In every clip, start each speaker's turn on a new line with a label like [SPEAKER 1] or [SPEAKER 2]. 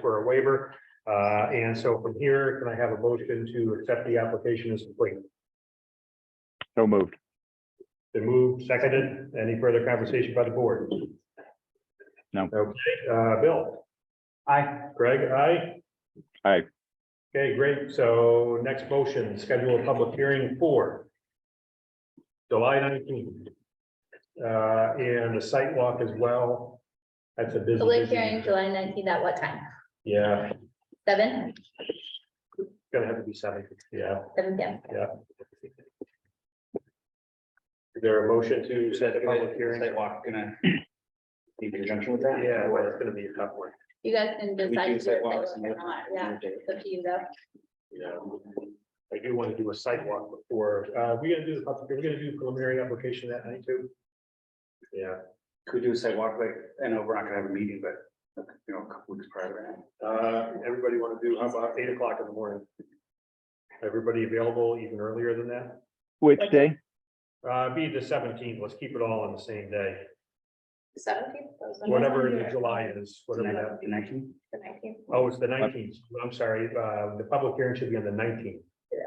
[SPEAKER 1] for a waiver. Uh, and so from here, can I have a motion to accept the application as complete?
[SPEAKER 2] So moved.
[SPEAKER 1] Been moved, seconded. Any further conversation by the board?
[SPEAKER 2] No.
[SPEAKER 1] Okay, uh, Bill? Aye. Greg, aye?
[SPEAKER 2] Aye.
[SPEAKER 1] Okay, great. So next motion, schedule a public hearing for July nineteenth. Uh, and a site walk as well. That's a busy.
[SPEAKER 3] Public
[SPEAKER 1] busy-
[SPEAKER 3] hearing July nineteenth at what time?
[SPEAKER 1] Yeah,
[SPEAKER 3] Seven,
[SPEAKER 1] gonna have to be seven, yeah,
[SPEAKER 3] seven P M.
[SPEAKER 1] yeah. Is there a motion to set a public hearing?
[SPEAKER 4] Sidewalk gonna. In conjunction with that?
[SPEAKER 1] Yeah, well, it's gonna be a tough one.
[SPEAKER 3] You guys can
[SPEAKER 4] We
[SPEAKER 3] decide.
[SPEAKER 4] do
[SPEAKER 3] to do it
[SPEAKER 4] sidewalks.
[SPEAKER 3] or
[SPEAKER 4] and-
[SPEAKER 3] not. Yeah, it's up to you though.
[SPEAKER 1] Yeah. I do want to do a site walk before, uh, we gonna do the, public- we're gonna do preliminary application that night too. Yeah,
[SPEAKER 4] Could do a sidewalk, like, I know we're not gonna have a meeting, but, you know, a couple weeks prior to that.
[SPEAKER 1] uh, everybody want to do, how about eight o'clock in the morning? Everybody available even earlier than that?
[SPEAKER 2] Which day?
[SPEAKER 1] Uh, be the seventeenth, let's keep it all on the same day,
[SPEAKER 3] Seventeenth?
[SPEAKER 1] whatever the July is, whatever that.
[SPEAKER 4] The nineteen,
[SPEAKER 3] The nineteenth.
[SPEAKER 1] Oh, it's the nineteenth, I'm sorry, uh, the public hearing should be on the nineteenth,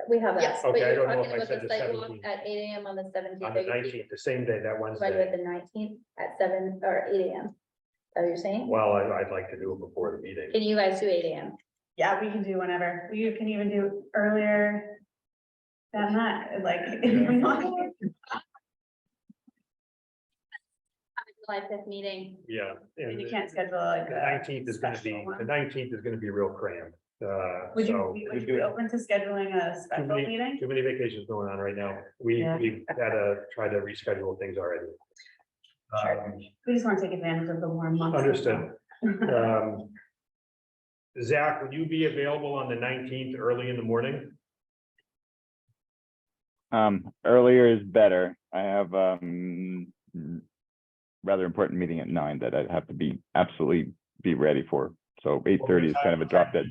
[SPEAKER 3] We have that. But
[SPEAKER 1] Okay, I
[SPEAKER 3] you're
[SPEAKER 1] don't know if
[SPEAKER 3] talking
[SPEAKER 1] I
[SPEAKER 3] about
[SPEAKER 1] said
[SPEAKER 3] the
[SPEAKER 1] the
[SPEAKER 3] sidewalk
[SPEAKER 1] 17th.
[SPEAKER 3] At eight A M on the
[SPEAKER 1] on the
[SPEAKER 3] seventeenth.
[SPEAKER 1] nineteenth, the same day, that
[SPEAKER 3] Right at
[SPEAKER 1] Wednesday.
[SPEAKER 3] the nineteenth at seven or eight A M. Are you saying?
[SPEAKER 1] Well, I, I'd like to do it before the meeting.
[SPEAKER 3] Can you guys do eight A M?
[SPEAKER 5] Yeah, we can do whenever. You can even do earlier than that, like. if we want.
[SPEAKER 3] July fifth meeting.
[SPEAKER 1] Yeah. and-
[SPEAKER 5] You can't schedule like.
[SPEAKER 1] The
[SPEAKER 5] a
[SPEAKER 1] nineteenth is gonna be,
[SPEAKER 5] special one.
[SPEAKER 1] the nineteenth is gonna be real cramped, uh,
[SPEAKER 5] Would
[SPEAKER 1] so.
[SPEAKER 5] you, would you be open to scheduling a special
[SPEAKER 1] many-
[SPEAKER 5] meeting?
[SPEAKER 1] Too many vacations going on right now. We,
[SPEAKER 5] Yeah.
[SPEAKER 1] we've had to try to reschedule things already. Um,
[SPEAKER 5] We just want to take advantage of the warm months.
[SPEAKER 1] Understood. Um, Zach, would you be available on the nineteenth early in the morning?
[SPEAKER 2] Um, earlier is better. I have, um, rather important meeting at nine that I'd have to be absolutely be ready for. So eight thirty is kind of a drop dead.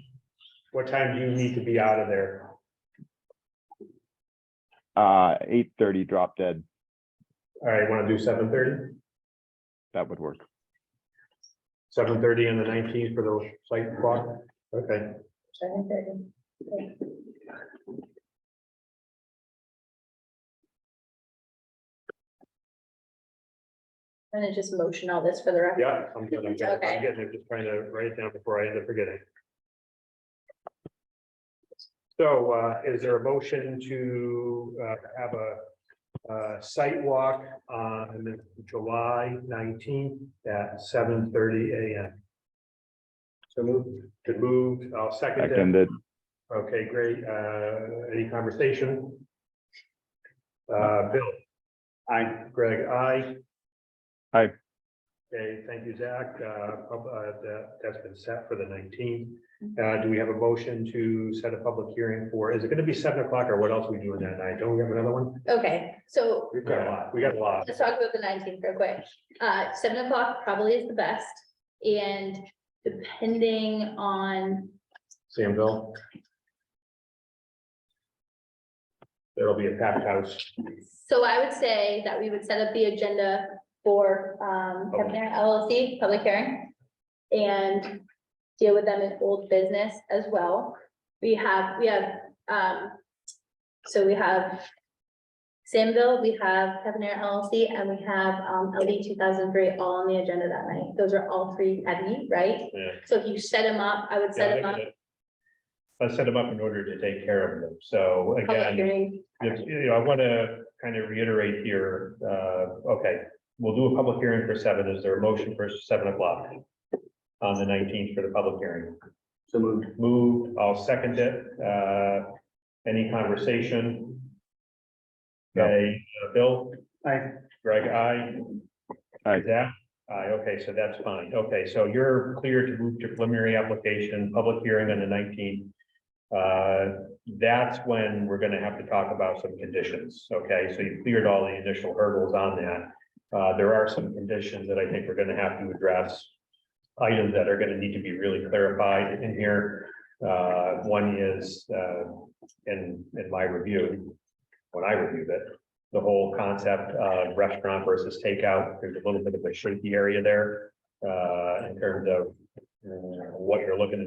[SPEAKER 1] What time do you need to be out of there?
[SPEAKER 2] Uh, eight thirty drop dead.
[SPEAKER 1] All right, wanna do seven thirty?
[SPEAKER 2] That would work.
[SPEAKER 1] Seven thirty on the nineteenth for the site clock? Okay,
[SPEAKER 3] Seven thirty. I'm gonna just motion all this for the record.
[SPEAKER 1] yeah, I'm good. I'm good. I'm
[SPEAKER 3] Okay.
[SPEAKER 1] getting it, just trying to write it down before I end up forgetting. So uh, is there a motion to uh, have a uh, site walk on July nineteenth at seven thirty AM? So moved. Good move. I'll second it.
[SPEAKER 2] Seconded.
[SPEAKER 1] Okay, great. Uh, Any conversation? Uh, Bill? I, Greg, I.
[SPEAKER 2] Aye.
[SPEAKER 1] Okay, thank you, Zach. Uh, pub- uh, that- That's been set for the nineteenth. Uh, Do we have a motion to set a public hearing for, is it going to be seven o'clock or what else are we doing that night? Don't we have another one?
[SPEAKER 3] Okay, so
[SPEAKER 1] We've got a lot. We got a lot.
[SPEAKER 3] Let's talk about the nineteenth real quick. Uh, seven o'clock probably is the best. And depending on,
[SPEAKER 1] Sam, Bill? There'll be a packed house.
[SPEAKER 3] so I would say that we would set up the agenda for, um, Kevin Aaron LLC, public hearing. And deal with them in old business as well. We have, we have, um, so we have Samville, we have Kevin Aaron LLC, and we have, um, LD two thousand three all on the agenda that night. Those are all three heavy, right?
[SPEAKER 1] Yeah.
[SPEAKER 3] So if you set them up, I would set them up.
[SPEAKER 1] I set them up in order to take care of them. So
[SPEAKER 3] public
[SPEAKER 1] again,
[SPEAKER 3] hearing.
[SPEAKER 1] if- you know, I want to kind of reiterate here, uh, okay, we'll do a public hearing for seven. Is there a motion for seven o'clock? On the nineteenth for the public hearing.
[SPEAKER 4] so moved.
[SPEAKER 1] Moved, I'll second it. Uh, any conversation?
[SPEAKER 2] No.
[SPEAKER 1] Okay, uh, Bill?
[SPEAKER 4] Aye.
[SPEAKER 1] Greg, aye.
[SPEAKER 2] Aye.
[SPEAKER 1] Zach? Aye, okay, so that's fine. Okay, so you're clear to move to preliminary application, public hearing on the nineteenth. Uh, that's when we're gonna have to talk about some conditions, okay? So you've cleared all the initial hurdles on that. Uh, there are some conditions that I think we're gonna have to address. Items that are gonna need to be really clarified in here. Uh, one is, uh, in, in my review, when I reviewed it, the whole concept of restaurant versus takeout, there's a little bit of a shaky area there. Uh, in terms of uh, what you're looking